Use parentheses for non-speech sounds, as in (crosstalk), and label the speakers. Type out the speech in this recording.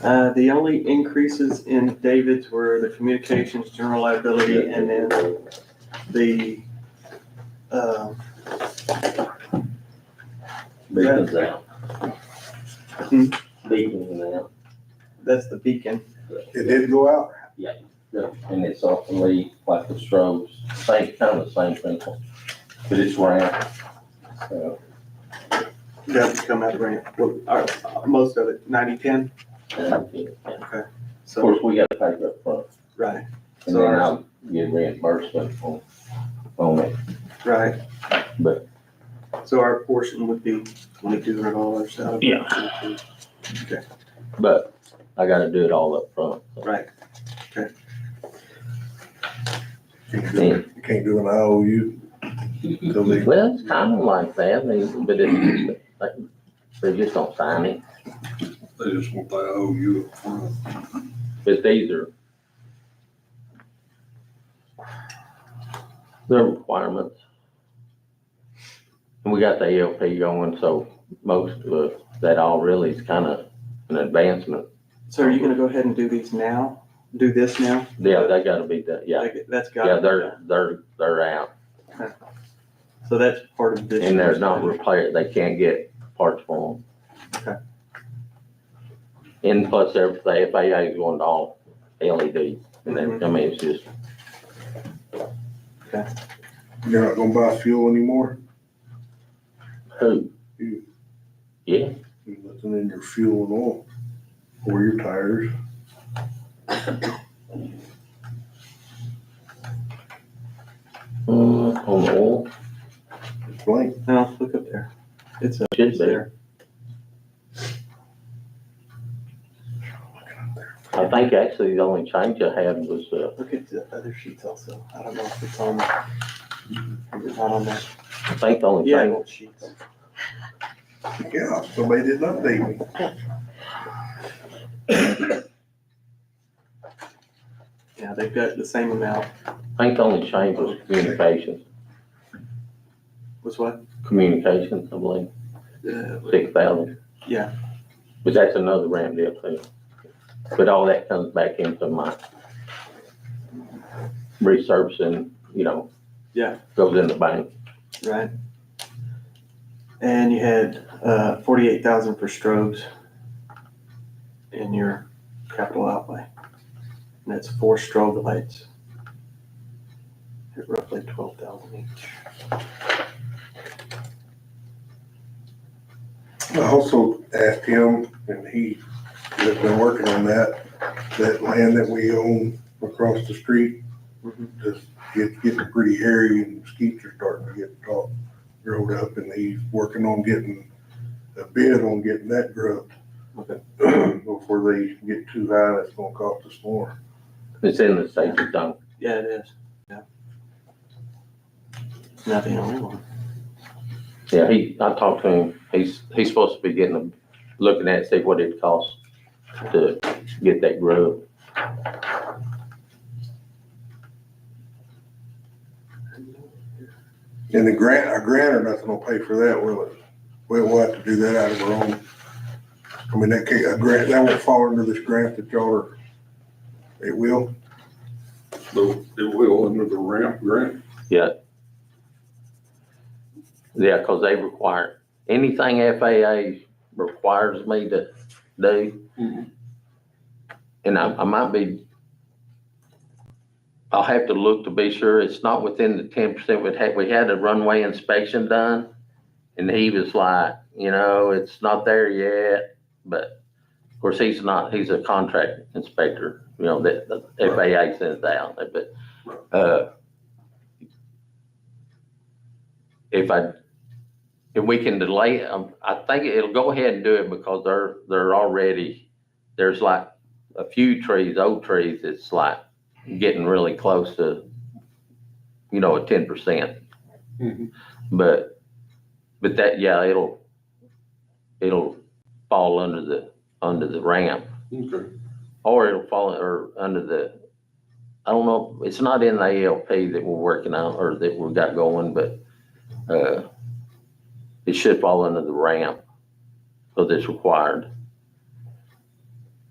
Speaker 1: Uh, the only increases in David's were the communications, general liability, and then the, uh,
Speaker 2: Beacon's out.
Speaker 1: Hmm.
Speaker 2: Beacon's out,
Speaker 1: that's the beacon.
Speaker 3: It did go out.
Speaker 2: and it's often lead, like the strobes, same, kind of the same principle, but it's round. So,
Speaker 1: Doesn't come out of grant. Well, our, most of it, ninety-ten,
Speaker 2: and I think- Of
Speaker 1: so,
Speaker 2: course, we gotta pay it up front,
Speaker 1: right,
Speaker 2: and then I'll get reimbursement on, on it.
Speaker 1: right.
Speaker 2: But-
Speaker 1: So our portion would be twenty-two hundred dollars out of. Yeah.
Speaker 2: But I gotta do it all up front.
Speaker 1: Right,
Speaker 3: You can't do it- you can't do an IOU. till they-
Speaker 2: Well, it's kind of like that, I mean, but it, they just don't sign it,
Speaker 4: They just want that OU up front.
Speaker 2: but these are they're requirements. And we got the ALP going, so most of that all really is kind of an advancement.
Speaker 1: so are you gonna go ahead and do these now? Do this now?
Speaker 2: Yeah, they gotta be that, yeah,
Speaker 1: Like, That's got.
Speaker 2: yeah, they're, they're, they're out,
Speaker 1: So that's part of this.
Speaker 2: and they're not repaired, they can't get parts for
Speaker 1: Okay.
Speaker 2: them. And plus, they're- the FAA is going to all LED, and then, I mean, it's just
Speaker 3: You're not gonna buy fuel anymore?
Speaker 2: Who?
Speaker 3: You.
Speaker 2: Yeah,
Speaker 3: You're looking in your fuel and oil or your tires.
Speaker 2: uh, on the oil,
Speaker 3: It's blank.
Speaker 1: No, look up there. It's up
Speaker 2: should be.
Speaker 1: there.
Speaker 2: I think actually the only change I had was, uh,
Speaker 1: Look at the other sheets also. I don't know if it's on. It's not on that.
Speaker 2: I think the only
Speaker 1: Yeah,
Speaker 2: change,
Speaker 1: old sheets.
Speaker 3: Yeah, somebody didn't update me.
Speaker 1: Yeah, they've got the same amount.
Speaker 2: I think the only change was communications,
Speaker 1: Was what?
Speaker 2: communications, I believe,
Speaker 1: Uh,
Speaker 2: six thousand.
Speaker 1: Yeah.
Speaker 2: But that's another ramp deal too. But all that comes back into my resurfacing, you know.
Speaker 1: Yeah.
Speaker 2: Goes in the bank.
Speaker 1: Right. And you had, uh, forty-eight thousand for strobes in your capital outlay. And that's four strobe lights. At roughly twelve thousand each.
Speaker 3: I also asked him, and he has been working on that, that land that we own across the street.
Speaker 1: Mhm.
Speaker 3: Just, it's getting pretty hairy and skeets are starting to get tall, growed up, and he's working on getting a bid on getting that grubbed.
Speaker 1: Okay.
Speaker 3: (clears throat) Before they get too high, that's gonna cost us more.
Speaker 2: It's in the safety zone.
Speaker 1: Yeah, it is. Yeah. Nothing on one.
Speaker 2: Yeah, he, I talked to him, he's, he's supposed to be getting, them, looking at, see what it costs to get that grub.
Speaker 3: And the grant, a grant or nothing will pay for that, will it? We'll we'll have to do that out of our own. I mean, that can't, a grant, that won't fall under this grant that y'all are, it will?
Speaker 4: Though it will under the ramp grant.
Speaker 2: Yeah, cause they require, anything FAA requires me to do,
Speaker 4: Mhm.
Speaker 2: and I, I might be, I'll have to look to be sure, it's not within the ten percent, we had, we had a runway inspection done, and he was like, you know, it's not there yet, but, of course, he's not, he's a contract inspector, you know, that, the FAA sends out, but, uh, if I if we can delay, um, I think it'll go ahead and do it because they're, they're already, there's like a few trees, old trees, it's like getting really close to, you know, a ten percent,
Speaker 4: Mhm.
Speaker 2: but, but that, yeah, it'll, it'll fall under the, under the ramp.
Speaker 4: Okay.
Speaker 2: Or it'll fall, or under the, I don't know, it's not in the ALP that we're working on or that we've got going, but, uh, it should fall under the ramp, so that's required.